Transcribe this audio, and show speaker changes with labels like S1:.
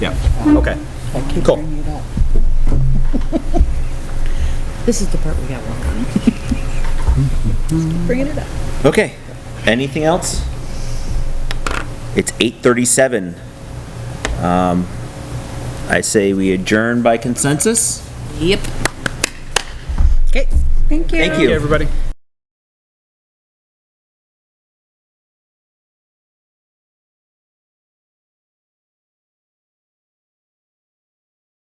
S1: Okay,
S2: I keep
S1: Cool.
S2: bringing it up.
S3: This is the part we got wrong.
S4: Bringing it up.
S1: okay. Anything else? It's 8:37. Um, I say we adjourn by consensus.
S3: Yep.
S4: Okay.
S1: Thank you.
S5: everybody.